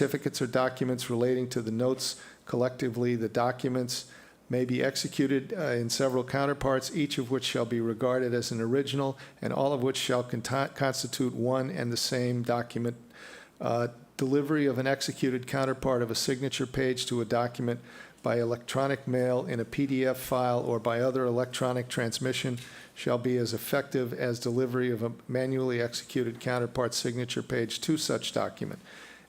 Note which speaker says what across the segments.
Speaker 1: Certificates or documents relating to the notes collectively, the documents may be executed uh, in several counterparts, each of which shall be regarded as an original, and all of which shall conti- constitute one and the same document. Uh, Delivery of an executed counterpart of a signature page to a document by electronic mail in a PDF file or by other electronic transmission shall be as effective as delivery of a manually executed counterpart signature page to such document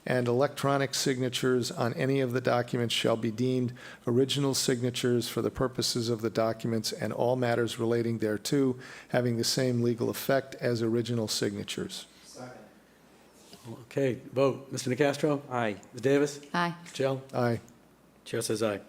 Speaker 1: and electronic signatures on any of the documents shall be deemed original signatures for the purposes of the documents and all matters relating thereto having the same legal effect as original signatures.
Speaker 2: Okay, vote. Mr. Nacastro?
Speaker 3: Aye.
Speaker 2: Ms. Davis?
Speaker 4: Aye.
Speaker 2: Michelle?
Speaker 1: Aye.
Speaker 2: Chair says aye.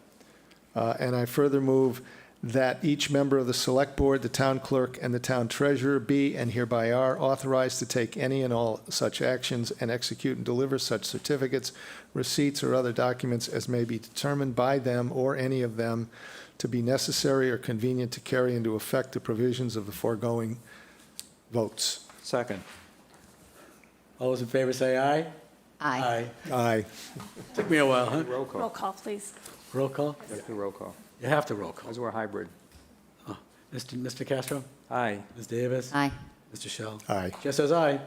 Speaker 1: Uh, And I further move that each member of the Select Board, the Town Clerk, and the Town Treasurer be and hereby are authorized to take any and all such actions and execute and deliver such certificates, receipts, or other documents as may be determined by them or any of them to be necessary or convenient to carry into effect the provisions of the foregoing votes.
Speaker 3: Second.
Speaker 2: All those in favor say aye?
Speaker 4: Aye.
Speaker 1: Aye.
Speaker 2: Took me a while, huh?
Speaker 5: Roll
Speaker 3: Roll call.
Speaker 5: call, please.
Speaker 2: Roll call?
Speaker 3: You have to roll call,
Speaker 2: You have to roll call.
Speaker 3: because we're hybrid.
Speaker 2: Mr. Mr. Castro?
Speaker 3: Aye.
Speaker 2: Ms. Davis?
Speaker 4: Aye.
Speaker 2: Mr. Shell?
Speaker 1: Aye.
Speaker 2: Chair says aye.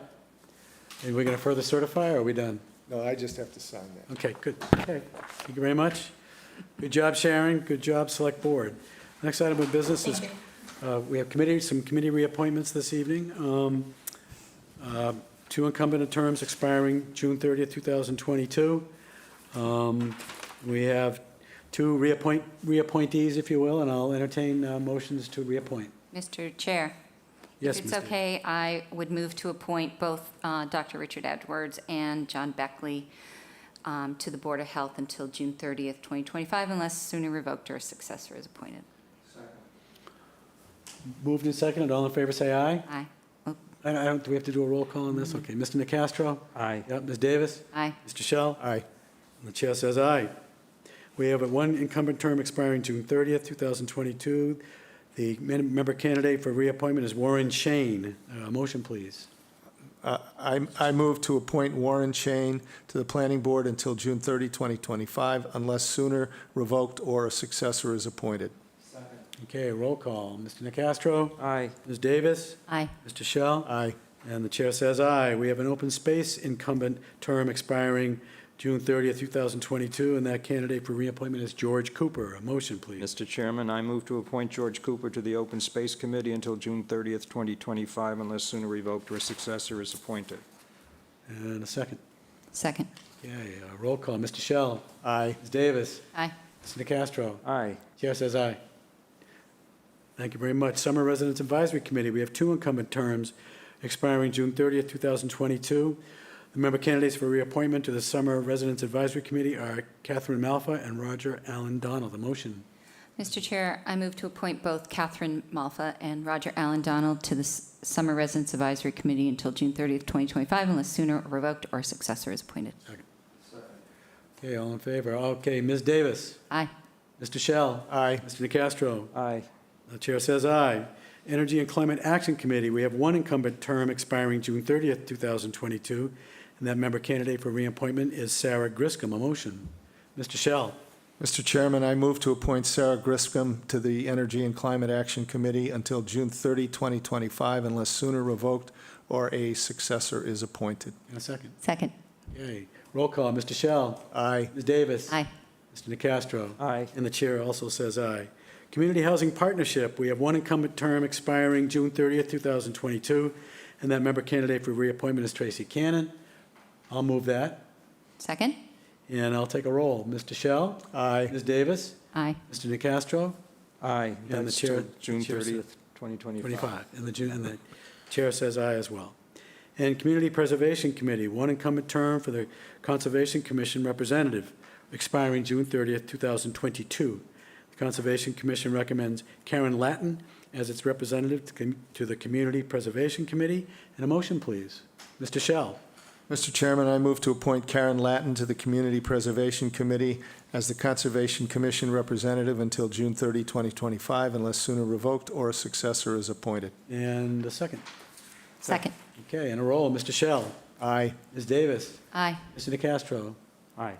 Speaker 2: And we're going to further certify, or are we done?
Speaker 1: No, I just have to sign that.
Speaker 2: Okay, good. Okay. Thank you very much. Good job, Sharon. Good job, Select Board. Next item of business is, uh, we have committee, some committee reappointments this evening. Um, uh, Two incumbent terms expiring June 30th, 2022. Um, We have two reappoint, reappointees, if you will, and I'll entertain uh, motions to reappoint.
Speaker 4: Mr. Chair,
Speaker 2: Yes,
Speaker 4: if
Speaker 2: Ms.
Speaker 4: it's
Speaker 2: Davis.
Speaker 4: okay, I would move to appoint both uh, Dr. Richard Edwards and John Beckley um, to the Board of Health until June 30th, 2025, unless sooner revoked or a successor is appointed.
Speaker 2: Moved and seconded. All in favor, say aye.
Speaker 4: Aye.
Speaker 2: I I don't, do we have to do a roll call on this?
Speaker 4: Mm-hmm.
Speaker 2: Okay. Mr. Nacastro?
Speaker 3: Aye.
Speaker 2: Yep, Ms. Davis?
Speaker 4: Aye.
Speaker 2: Mr. Shell?
Speaker 1: Aye.
Speaker 2: The chair says aye. We have a one incumbent term expiring June 30th, 2022. The men- member candidate for reappointment is Warren Shane. Uh, Motion, please.
Speaker 1: Uh, I I move to appoint Warren Chain to the Planning Board until June 30, 2025, unless sooner revoked or a successor is appointed.
Speaker 2: Okay, roll call. Mr. Nacastro?
Speaker 3: Aye.
Speaker 2: Ms. Davis?
Speaker 4: Aye.
Speaker 2: Mr. Shell?
Speaker 1: Aye.
Speaker 2: And the chair says aye. We have an open space incumbent term expiring June 30th, 2022, and that candidate for reappointment is George Cooper. A motion, please.
Speaker 3: Mr. Chairman, I move to appoint George Cooper to the Open Space Committee until June 30th, 2025, unless sooner revoked or a successor is appointed.
Speaker 2: And a second.
Speaker 4: Second.
Speaker 2: Okay, uh, roll call. Mr. Shell?
Speaker 1: Aye.
Speaker 2: Ms. Davis?
Speaker 4: Aye.
Speaker 2: Mr. Nacastro?
Speaker 3: Aye.
Speaker 2: Chair says aye. Thank you very much. Summer Residents Advisory Committee, we have two incumbent terms expiring June 30th, 2022. The member candidates for reappointment to the Summer Residents Advisory Committee are Catherine Malfa and Roger Allen Donald. The motion.
Speaker 4: Mr. Chair, I move to appoint both Catherine Malfa and Roger Allen Donald to the S- Summer Residence Advisory Committee until June 30th, 2025, unless sooner revoked or a successor is appointed.
Speaker 2: Okay, all in favor? Okay, Ms. Davis,
Speaker 4: Aye.
Speaker 2: Mr. Shell,
Speaker 1: Aye.
Speaker 2: Mr. Nacastro,
Speaker 3: Aye.
Speaker 2: The chair says aye. Energy and Climate Action Committee, we have one incumbent term expiring June 30th, 2022, and that member candidate for reappointment is Sarah Griscom. A motion. Mr. Shell,
Speaker 1: Mr. Chairman, I move to appoint Sarah Griscom to the Energy and Climate Action Committee until June 30, 2025, unless sooner revoked or a successor is appointed.
Speaker 2: in a second.
Speaker 4: Second.
Speaker 2: Yay. Roll call, Mr. Shell.
Speaker 1: Aye.
Speaker 2: Ms. Davis.
Speaker 4: Aye.
Speaker 2: Mr. Nacastro.
Speaker 3: Aye.
Speaker 2: And the chair also says aye. Community Housing Partnership, we have one incumbent term expiring June 30th, 2022, and that member candidate for reappointment is Tracy Cannon. I'll move that,
Speaker 4: Second.
Speaker 2: and I'll take a roll. Mr. Shell?
Speaker 1: Aye.
Speaker 2: Ms. Davis?
Speaker 4: Aye.
Speaker 2: Mr. Nacastro?
Speaker 3: Aye.
Speaker 2: the
Speaker 3: That's
Speaker 2: chair-
Speaker 3: to June
Speaker 2: chair says-
Speaker 3: 30th, 2025.
Speaker 2: 25. And the, ju- and the chair says aye as well. And Community Preservation Committee, one incumbent term for the Conservation Commission representative, expiring June 30th, 2022. The Conservation Commission recommends Karen Latin as its representative to com- to the Community Preservation Committee. And a motion, please. Mr. Shell,
Speaker 1: Mr. Chairman, I move to appoint Karen Latin to the Community Preservation Committee as the Conservation Commission representative until June 30, 2025, unless sooner revoked or a successor is appointed.
Speaker 2: and a second.
Speaker 4: Second.
Speaker 2: Okay, and a roll. Mr. Shell,
Speaker 1: Aye.
Speaker 2: Ms. Davis,
Speaker 4: Aye.
Speaker 2: Mr. DeCastro,
Speaker 3: Aye.